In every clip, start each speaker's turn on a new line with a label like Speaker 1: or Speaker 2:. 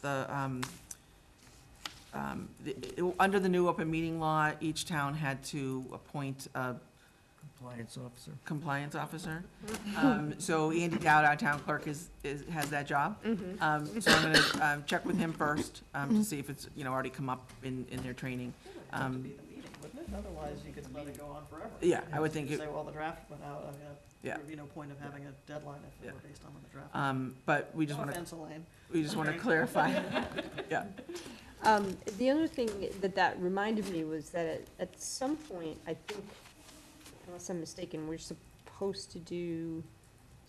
Speaker 1: the, um, um, the- it- under the new open meeting law, each town had to appoint a
Speaker 2: Compliance officer.
Speaker 1: compliance officer. Um, So Andy Dowd, our town clerk, is, is, has that job. Um, So I'm gonna um, check with him first, um, to see if it's, you know, already come up in, in their training. Um,
Speaker 3: Wouldn't it, otherwise you could let it go on forever?
Speaker 1: Yeah, I would think,
Speaker 3: You
Speaker 1: it-
Speaker 3: Say, well, the draft went out, I mean,
Speaker 1: Yeah.
Speaker 3: there would be no point of having a deadline if it were based on when the draft. Oh,
Speaker 1: um, but we just
Speaker 3: No
Speaker 1: want to,
Speaker 3: offense, Elaine.
Speaker 1: we just want to clarify. Yeah,
Speaker 4: Um, the other thing that that reminded me was that at, at some point, I think, unless I'm mistaken, we're supposed to do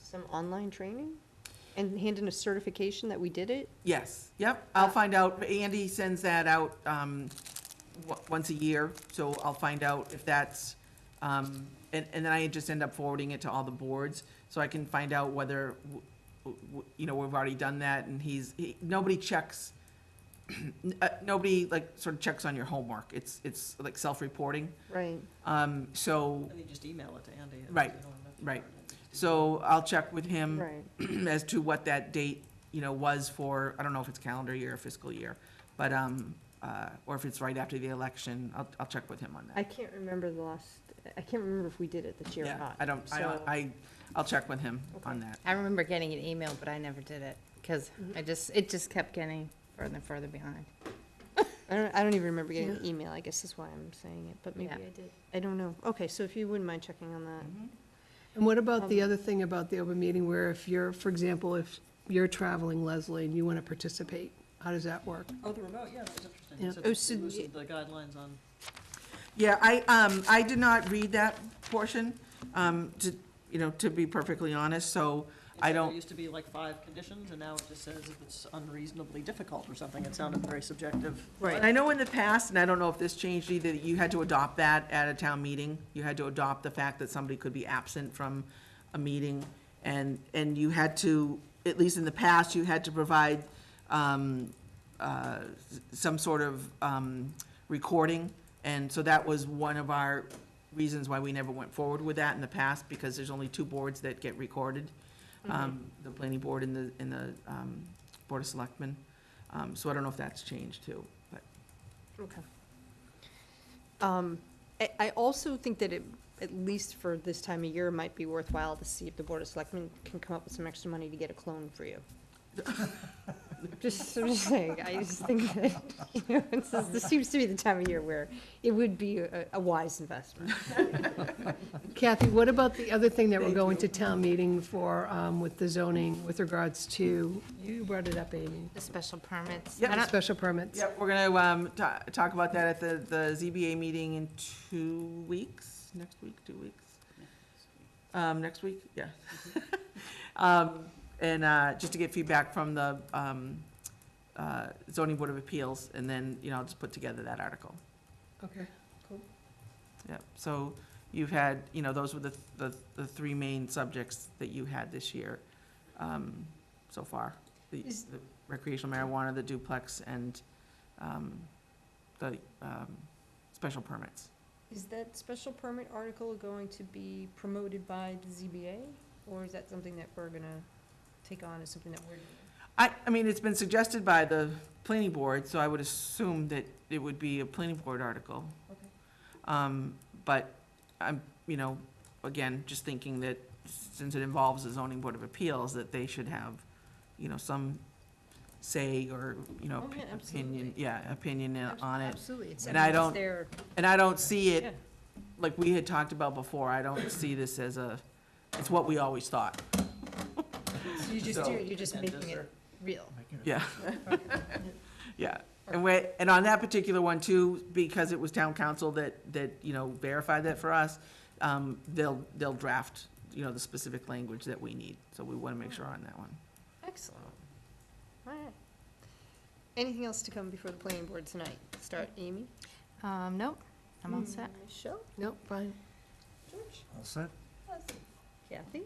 Speaker 4: some online training and hand in a certification that we did it.
Speaker 1: yes, yep, I'll find out. Andy sends that out um, wa- once a year, so I'll find out if that's, um, and, and then I just end up forwarding it to all the boards, so I can find out whether, w- w- you know, we've already done that, and he's, he- nobody checks, n- uh, nobody like sort of checks on your homework. It's, it's like self-reporting.
Speaker 4: Right.
Speaker 1: Um, So,
Speaker 3: And you just email it to Andy. and
Speaker 1: Right,
Speaker 3: you don't have to-
Speaker 1: right. so I'll check with him.
Speaker 4: Right.
Speaker 1: as to what that date, you know, was for, I don't know if it's calendar year or fiscal year, but, um, uh, or if it's right after the election, I'll, I'll check with him on
Speaker 4: I
Speaker 1: that.
Speaker 4: can't remember the last, I can't remember if we did it this year or
Speaker 1: Yeah,
Speaker 4: not.
Speaker 1: I don't, I don't,
Speaker 4: so-
Speaker 1: I, I'll check with him on that.
Speaker 5: I remember getting an email, but I never did it, because I just, it just kept getting further and further behind.
Speaker 4: I don't, I don't even remember getting an email, I guess is why I'm saying it, but maybe
Speaker 5: Yeah.
Speaker 4: I did. I don't know. Okay, so if you wouldn't mind checking on that.
Speaker 6: And what about the other thing about the open meeting where if you're, for example, if you're traveling, Leslie, and you want to participate, how does that work?
Speaker 3: Oh, the remote, yeah, that was interesting.
Speaker 6: Yeah.
Speaker 3: So
Speaker 4: Oh,
Speaker 3: they
Speaker 4: so
Speaker 3: loosened the guidelines on,
Speaker 1: Yeah, I, um, I did not read that portion, um, to, you know, to be perfectly honest, so I
Speaker 3: there
Speaker 1: don't,
Speaker 3: used to be like five conditions, and now it just says if it's unreasonably difficult or something. It sounded very subjective.
Speaker 1: right, I know in the past, and I don't know if this changed either, that you had to adopt that at a town meeting. You had to adopt the fact that somebody could be absent from a meeting, and, and you had to, at least in the past, you had to provide, um, uh, s- some sort of, um, recording. And so that was one of our reasons why we never went forward with that in the past, because there's only two boards that get recorded. Um, the planning board and the, and the, um, board of selectmen. Um, so I don't know if that's changed too, but.
Speaker 4: Okay. Um, I, I also think that it, at least for this time of year, might be worthwhile to see if the Board of Selectmen can come up with some extra money to get a clone for you. Just, I'm just saying, I just think that, you know, it's- this seems to be the time of year where it would be a, a wise investment.
Speaker 6: Kathy, what about the other thing that we're going to town meeting for, um, with the zoning with regards to, you brought it up, Amy,
Speaker 5: The special permits.
Speaker 1: Yep.
Speaker 5: I don't-
Speaker 6: special permits?
Speaker 1: Yep, we're gonna, um, ta- talk about that at the, the ZBA meeting in two weeks, next week, two weeks? Um, next week, yeah. Um, and, uh, just to get feedback from the, um, uh, zoning board of appeals, and then, you know, I'll just put together that article.
Speaker 6: Okay.
Speaker 1: Yeah, so you've had, you know, those were the, the, the three main subjects that you had this year, um, so far. The
Speaker 4: Is-
Speaker 1: the recreational marijuana, the duplex, and, um, the, um, special permits.
Speaker 4: Is that special permit article going to be promoted by the ZBA? Or is that something that we're gonna take on as something that we're doing?
Speaker 1: I, I mean, it's been suggested by the planning board, so I would assume that it would be a planning board article.
Speaker 4: Okay.
Speaker 1: Um, but I'm, you know, again, just thinking that since it involves the zoning board of appeals, that they should have, you know, some say or, you know,
Speaker 4: Oh, yeah,
Speaker 1: opinion,
Speaker 4: absolutely.
Speaker 1: yeah, opinion in- on it.
Speaker 4: Absolutely. it's-
Speaker 1: And I
Speaker 4: it's
Speaker 1: don't-
Speaker 4: their-
Speaker 1: And I don't see
Speaker 4: Yeah.
Speaker 1: it, like we had talked about before, I don't see this as a, it's what we always thought,
Speaker 4: So you just
Speaker 1: So-
Speaker 4: do, it, you're just
Speaker 3: And
Speaker 4: making
Speaker 3: dessert.
Speaker 4: it real.
Speaker 1: yeah. Yeah, and we, and on that particular one too, because it was town council that, that, you know, verified that for us, um, they'll, they'll draft, you know, the specific language that we need, so we wanna make sure on that one.
Speaker 4: Excellent. All right. Anything else to come before the planning board tonight? Start Amy?
Speaker 5: Um, nope, I'm all set.
Speaker 4: Michelle?
Speaker 6: Nope, fine.
Speaker 4: George?
Speaker 2: All set?
Speaker 4: Kathy?
Speaker 1: I'm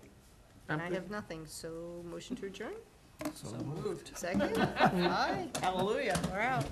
Speaker 4: And I
Speaker 1: good.
Speaker 4: have nothing, so motion to adjourn?
Speaker 3: So moved.
Speaker 4: Second? Aye.
Speaker 3: Hallelujah.
Speaker 4: We're out.